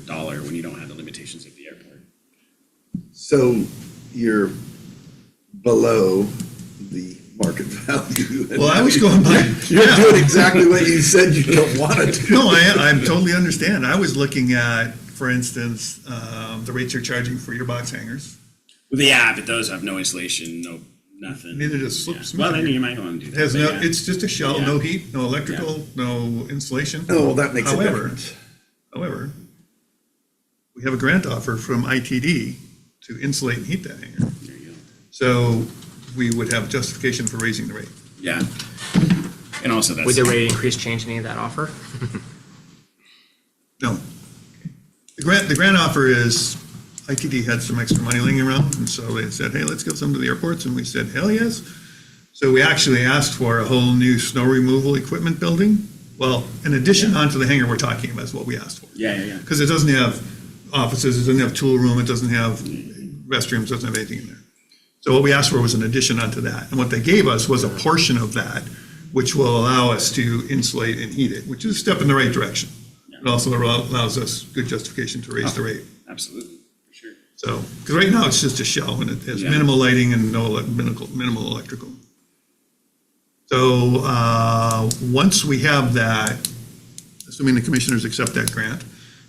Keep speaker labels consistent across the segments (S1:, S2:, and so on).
S1: dollar when you don't have the limitations of the airport.
S2: So you're below the market value.
S3: Well, I was going by,
S2: You're doing exactly what you said you don't want to do.
S3: no, I, I totally understand. I was looking at, for instance, um, the rates you're charging for your box hangers.
S1: Well, yeah, but those have no insulation, no, nothing.
S3: Neither does slip
S1: Yeah.
S3: smooth.
S1: Well, then you might want to do
S3: It
S1: that.
S3: has
S1: but
S3: no,
S1: yeah.
S3: it's just a shell, no
S1: Yeah.
S3: heat, no electrical, no insulation.
S2: Oh, well, that makes a
S3: However,
S2: difference.
S3: However, we have a grant offer from ITD to insulate and heat that hanger.
S1: There you go.
S3: So we would have justification for raising the rate.
S1: Yeah. And also that's.
S4: Would the rate increase change any of that offer?
S3: No. The grant, the grant offer is, ITD had some extra money laying around, and so they said, hey, let's give some to the airports, and we said, hell yes. So we actually asked for a whole new snow removal equipment building. Well, in addition onto the hangar we're talking about is what we asked for.
S1: Yeah, yeah, yeah.
S3: Because it doesn't have offices, it doesn't have tool room, it doesn't have restrooms, doesn't have anything in there. So what we asked for was an addition onto that, and what they gave us was a portion of that, which will allow us to insulate and heat it, which is a step in the right direction. It also allow- allows us good justification to raise the rate,
S1: Absolutely, for sure.
S3: so, because right now it's just a shell, and it has
S1: Yeah.
S3: minimal lighting and no elec- minimal, minimal electrical. So, uh, once we have that, assuming the commissioners accept that grant,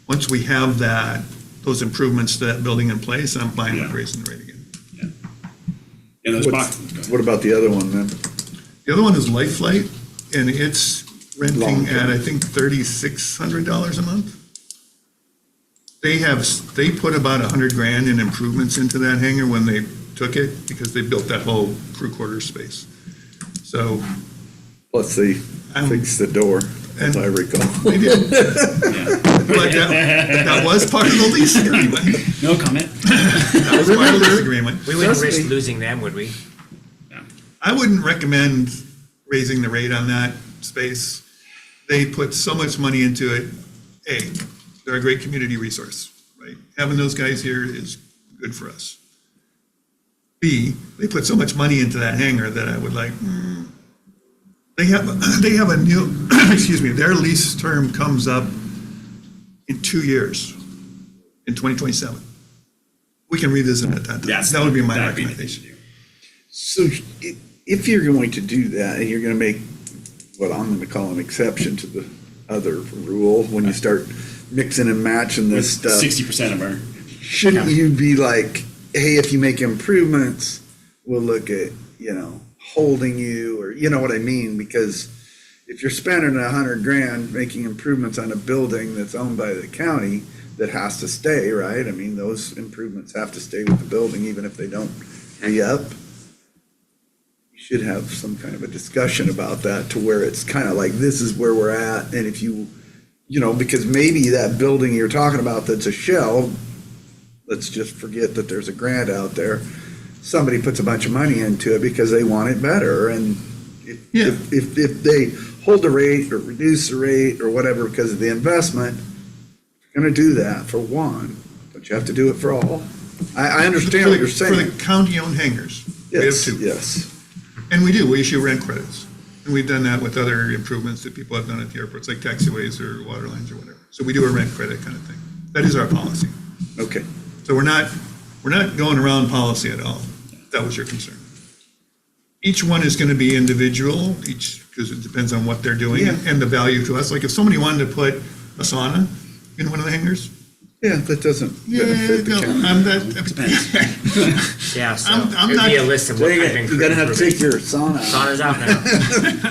S3: once we have that, those improvements to that building in place, I'm fine with
S1: Yeah.
S3: raising the rate again.
S1: Yeah, those
S2: What's-
S1: boxes.
S2: What about the other one then?
S3: The other one is Life Flight, and it's renting at,
S2: Long-term.
S3: I think, thirty-six hundred dollars a month. They have, s- they put about a hundred grand in improvements into that hangar when they took it, because they built that whole crew quarter space. So,
S2: Plus they
S3: I'm-
S2: fix the door, as
S3: Um,
S2: I
S3: And-
S2: recall.
S3: they did, but
S1: Yeah.
S3: that, that was part of the lease agreement.
S1: No comment.
S3: That was part of the lease agreement.
S4: We wouldn't
S2: Trust
S4: risk
S2: me.
S4: losing them, would we?
S3: I wouldn't recommend raising the rate on that space. They put so much money into it. A, they're a great community resource, right? Having those guys here is good for us. B, they put so much money into that hangar that I would like, hmm. they have, they have a new, excuse me, their lease term comes up in two years, in 2027. We can revisit it at that time.
S1: Yes.
S3: That would be my
S1: that'd the
S3: recommendation.
S1: thing to do.
S2: So i- if you're going to do that, and you're going to make what I'm going to call an exception to the other rule, when you
S3: Uh,
S2: start mixing and matching this stuff,
S1: Sixty percent of our,
S2: shouldn't you be like, hey, if you make improvements, we'll look at, you know, holding you, or, you know what I mean? Because if you're spending a hundred grand making improvements on a building that's owned by the county, that has to stay, right? I mean, those improvements have to stay with the building, even if they don't re-up. You should have some kind of a discussion about that to where it's kind of like, this is where we're at, and if you, you know, because maybe that building you're talking about that's a shell, let's just forget that there's a grant out there. Somebody puts a bunch of money into it because they want it better, and if,
S3: Yeah.
S2: if, if- if they hold the rate or reduce the rate or whatever because of the investment, if you're gonna do that for one, don't you have to do it for all? I, I understand
S3: For
S2: what
S3: the-
S2: you're saying.
S3: For the county-owned hangars. We have
S2: Yes,
S3: two.
S2: yes.
S3: And we do, we issue rent credits. And we've done that with other improvements that people have done at the airports, like taxiways or water lines or whatever. So we do a rent credit kind of thing. That is our policy.
S2: Okay.
S3: So we're not, we're not going around policy at all. if That was your concern. Each one is going to be individual, each, because it depends on what they're doing
S2: Yeah.
S3: and the value to us. Like if somebody wanted to put a sauna in one of the hangars,
S2: Yeah, that doesn't
S3: yeah,
S2: benefit the
S3: no,
S2: county.
S3: I'm that.
S1: Depends.
S4: Yeah, so
S3: I'm- I'm
S4: there'd be a
S3: not-
S4: list of what
S2: Dang
S4: kind of
S2: it, You're gonna have to take
S4: improvements.
S2: your sauna out.
S4: Sauna's out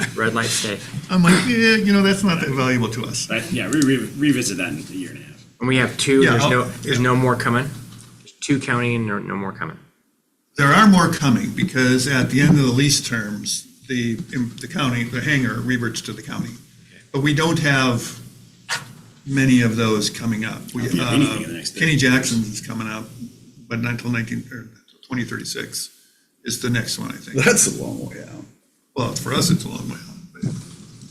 S4: now. Red light stay.
S3: I'm like, yeah, you know, that's not that valuable to us.
S1: But yeah, we re- revisit that in a year and a half.
S4: And we have two,
S3: Yeah,
S4: there's
S3: I'll-
S4: no, there's no more coming. There's two counting and no, no more coming.
S3: There are more coming because at the end of the lease terms, the, the county, the hangar reverts to the county. But we don't have many of those coming up. We,
S1: Yeah, anything in the
S3: uh,
S1: next
S3: Kenny Jackson's is coming up, but not until nineteen, or twenty thirty-six is the next one, I think.
S2: That's a long way out.
S3: Well, for us, it's a long way out. but-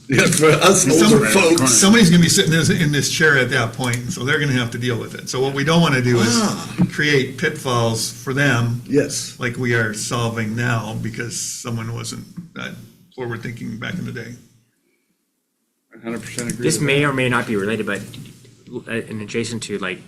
S2: Yeah, for us
S3: And some-
S2: older folks.
S3: Somebody's gonna be sitting this- in this chair at that point, and so they're gonna have to deal with it. So what we don't wanna do
S2: Ah.
S3: is create pitfalls for them
S2: Yes,
S3: like we are solving now because someone wasn't that forward-thinking back in the day.
S2: hundred percent agree.
S4: This
S2: with that.
S4: may or may not be related, but uh, and adjacent to like